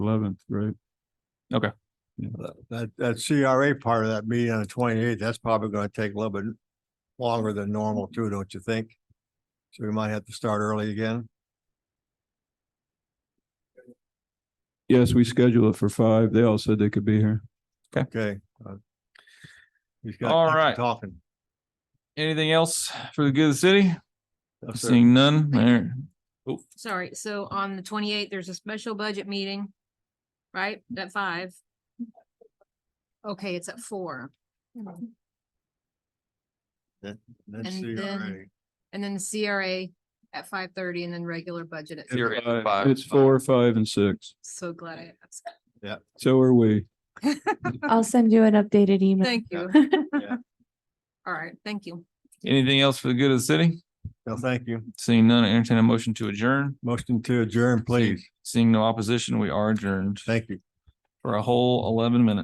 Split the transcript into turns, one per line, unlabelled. eleventh, right?
That- That, that CRA part of that meeting on the twenty-eighth, that's probably gonna take a little bit longer than normal too, don't you think? So we might have to start early again.
Yes, we schedule it for five. They all said they could be here.
Okay. uh, he's got
All
lots of
right.
Talking.
Anything else for the good of the city?
Yes, sir.
Seeing none, there,
Sorry, so on the twenty-eighth, there's a special budget meeting, right, at five? Okay, it's at four,
That's
and then-
CRA.
and then the CRA at five thirty, and then regular budget at,
Zero. You're at
Five-
five.
uh, It's four, five and six.
so glad I asked.
So are we.
I'll send you an updated email.
Thank you.
Yeah.
All right, thank you.
anything else for the good of the city?
No, thank you.
Seeing none, I entertain a motion to adjourn.
Motion to adjourn, please.
Seeing no opposition, we are adjourned
Thank you.
for a whole eleven minutes.